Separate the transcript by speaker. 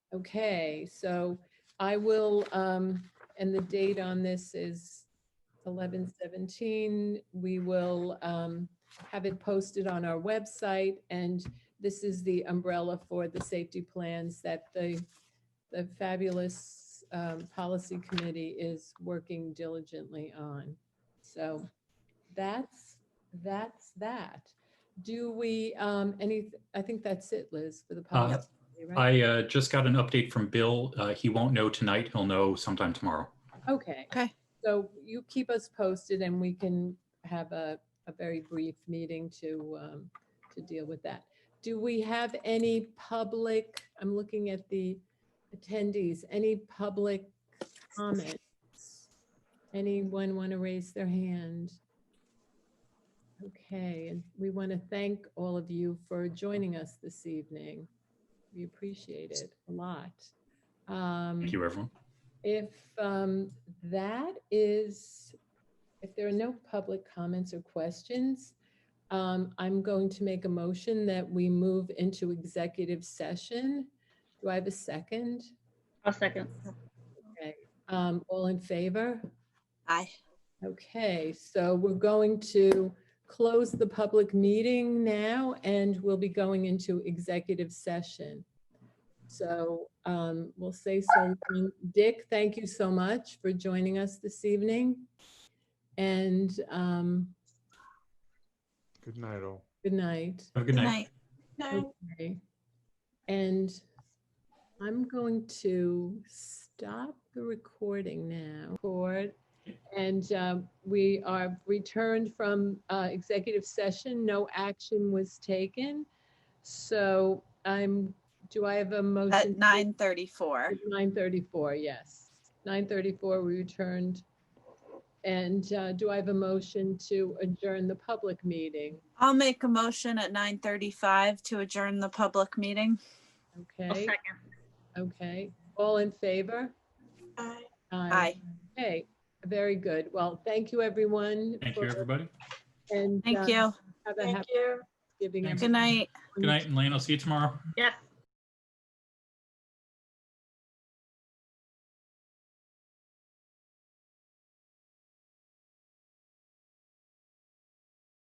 Speaker 1: Okay, so I will, um, and the date on this is eleven seventeen. We will, um, have it posted on our website and this is the umbrella for the safety plans that the, the fabulous, um, policy committee is working diligently on. So that's, that's that. Do we, um, any, I think that's it, Liz, for the policy. right?
Speaker 2: I uh, just got an update from Bill. Uh, he won't know tonight. He'll know sometime tomorrow.
Speaker 1: Okay.
Speaker 3: Okay.
Speaker 1: So you keep us posted and we can have a, a very brief meeting to, um, to deal with that. Do we have any public, I'm looking at the attendees, any public comments? Anyone want to raise their hand? Okay, and we want to thank all of you for joining us this evening. We appreciate it a lot. Um,
Speaker 2: Thank you, everyone.
Speaker 1: if um, that is, if there are no public comments or questions, um, I'm going to make a motion that we move into executive session. Do I have a second?
Speaker 4: I'll second.
Speaker 1: Um, All in favor?
Speaker 3: Aye.
Speaker 1: Okay, so we're going to close the public meeting now and we'll be going into executive session. So um, we'll say so. long. Dick, thank you so much for joining us this evening. And um,
Speaker 5: Good night, all.
Speaker 1: good night.
Speaker 2: Have a good night.
Speaker 1: Okay. And I'm going to stop the recording now. Record. And um, we are returned from uh, executive session. No action was taken. So I'm, do I have a motion?
Speaker 3: At
Speaker 1: to-
Speaker 3: nine thirty-four.
Speaker 1: 9:34, yes. 9:34, we returned. And uh, do I have a motion to adjourn the public meeting?
Speaker 3: I'll make a motion at nine thirty-five to adjourn the public meeting.
Speaker 4: I'll
Speaker 1: Okay,
Speaker 4: second.
Speaker 1: okay. All in favor?
Speaker 3: Aye.
Speaker 1: Okay, very good. Well, thank you, everyone.
Speaker 2: Thank you,
Speaker 1: for-
Speaker 2: everybody.
Speaker 1: And.
Speaker 3: Thank
Speaker 1: uh,
Speaker 3: you.
Speaker 1: Have a happy
Speaker 4: you.
Speaker 1: Thanksgiving.
Speaker 2: Thanks.
Speaker 3: Good night.
Speaker 2: Good night, and Lane. I'll see you tomorrow.
Speaker 4: Yes.